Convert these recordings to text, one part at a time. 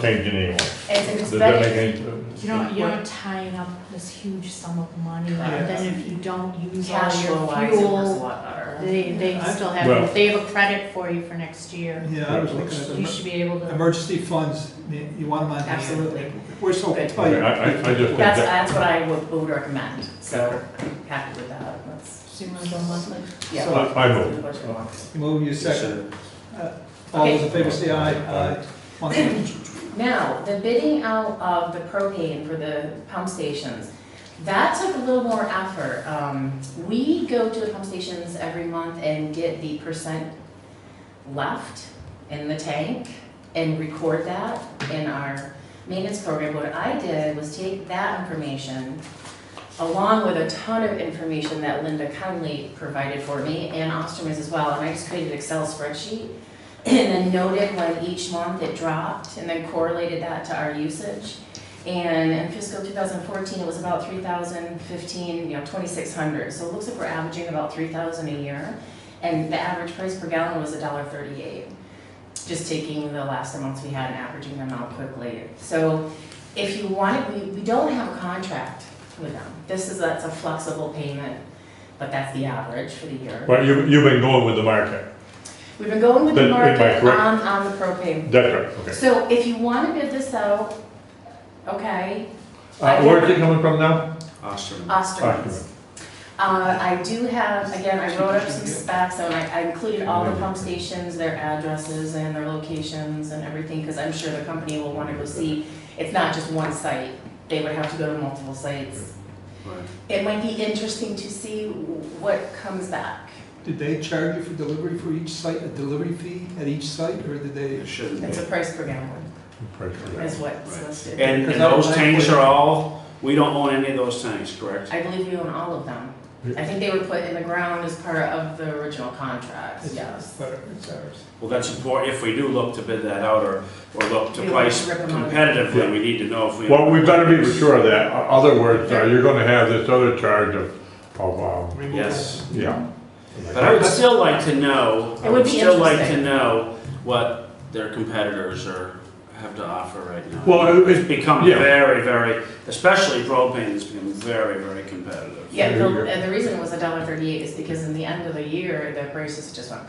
change it anyway. It's, it's Does that better, make any? You don't, you're not tying up this huge sum of money, and then if you don't use all cash flow your wise, it works a fuel, lot better. they, they I- still Well- have, they have a credit for you for next year. Yeah, I was You looking at should be able the to, emergency funds, you you want them on hand. Absolutely. We're so Good. tight. Okay, I, I, I just think That's, that, that's what I would, would recommend, so I'm happy with that, that's, so you might as well monthly. yeah. I I move. Move you second. Uh, All those in favor say aye. Aye. On the- Now, the bidding out of the propane for the pump stations, that took a little more effort. Um, We go to the pump stations every month and get the percent left in the tank and record that in our maintenance program. What I did was take that information along with a ton of information that Linda kindly provided for me and Osterman's as well, and I just created an Excel spreadsheet and then noted when each month it dropped, and then correlated that to our usage. And in fiscal 2014, it was about 3,015, you know, 2,600. So it looks like we're averaging about 3,000 a year, and the average price per gallon was $1.38. Just taking the last months we had and averaging them out quickly. So if you want, we, we don't have a contract with them. This is, that's a flexible payment, but that's the average for the year. Well, you, you've been going with the market. We've been going with the Then, am I market correct? on, on the propane. That's right, okay. So if you want to bid this out, okay, Uh, where's it coming from now? Osterman. Osterman's. Uh, I do have, again, I wrote up some specs, and I I included all the pump stations, their addresses and their locations and everything, because I'm sure the company will want to go see. It's not just one site, they would have to go to multiple sites. Right. It might be interesting to see what comes back. Did they charge you for delivery for each site, a delivery fee at each site, or did they? It shouldn't It's a be. price per gallon, Price for that. is what's listed. And, and those tanks are all, we don't own any of those tanks, correct? I believe we own all of them. I think they were put in the ground as part of the original contract, yes. But it's ours. Well, that's important, if we do look to bid that out or, or look to We want price to rip 'em out. competitively, we need to know if we. Well, we better be sure of that, O- other words, uh, you're gonna have this other charge of, of, um, Removal. Yes, yeah. but I would still like to know, I It would would be still like to interesting. know what their competitors are, have to offer right now. Well, It's it- become yeah. very, very, especially propane has become very, very competitive. Yeah, There you go. the, and the reason it was a dollar thirty-eight is because in the end of the year, the prices just went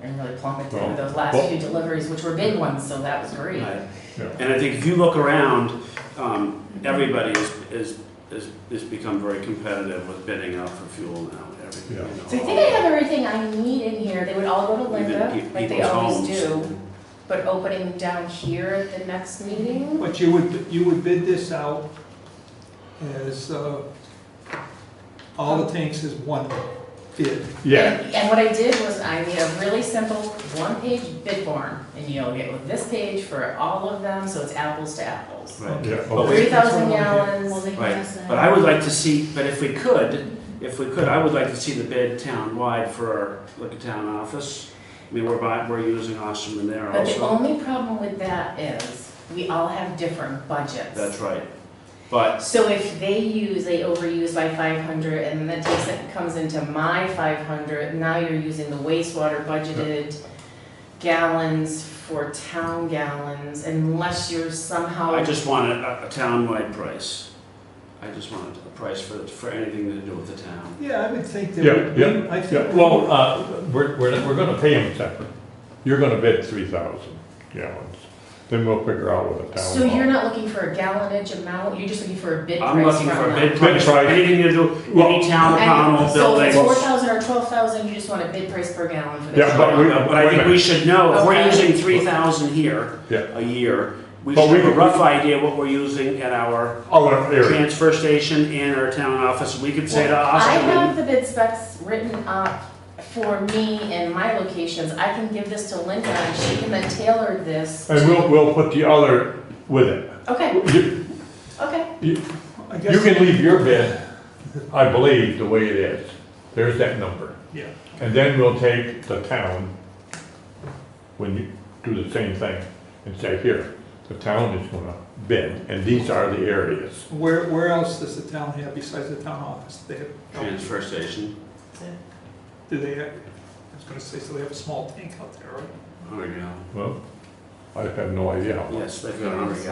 and really plummeted Well, with those last well- few deliveries, which were big ones, so that was great. Right. Yeah. And I think if you look around, um, everybody is, is, is, has become very competitive with bidding out for fuel now. Every- you Yeah. know, So I think I have everything I need in here, they would all go to even pe- Linda, like they people's always homes. do, but opening down here at the next meeting, But you would, you would bid this out as, uh, all the tanks as one bid. Yeah, And- And what I did was I made a really simple one-page bid form, and you'll get with this page for all of them, so it's apples to apples. Right. yeah, But okay. we- Three thousand Well, gallons, they can Right. ask that. But I would like to see, but if we could, if we could, I would like to see the bid town-wide for, our like a town office. I mean, we're buying, we're using Osterman there but the also. only problem with that is, we all have different budgets. That's right. But, So if they use, they overuse by five hundred, and then that takes, it comes into my five hundred, now you're using the wastewater budgeted gallons for town gallons, unless you're somehow. I just want a, a town-wide price. I just want a price for, for anything to do with the town. Yeah, I would think that. Yeah, yeah, I think- yeah, well, uh, we're, we're, we're gonna pay them separate. You're gonna bid three thousand gallons, then we'll figure out what the town. So you're not looking for a gallonage amount, you're just looking for a bid price I'm looking from for a them. bid price, for price. anything to do, Well- any town or And panel So if it's building. four thousand or twelve thousand, you just want a bid price per gallon for the. Yeah, but we- But I think we should know, if we're Okay. using three thousand here Yeah. a year, we But should we have a could- rough idea what we're using at our Our area, transfer station and our town office, we could say to I have Austin. the bid specs written up for me and my locations, I can give this to Linda, and she can then tailor this. and we'll, we'll put the other with it. Okay, You, okay, I guess- you can leave your bid, I believe, the way it is, there's that number. Yeah. And then we'll take the town, when you do the same thing, and say, here, the town is gonna bid, and these are the areas. Where, where else does the town have besides the town office? They have, Transfer station, do they, have- I was gonna say, so they have a small tank out there, right? oh, yeah. Well, I have no idea how much. Yes, they've got a number, yeah.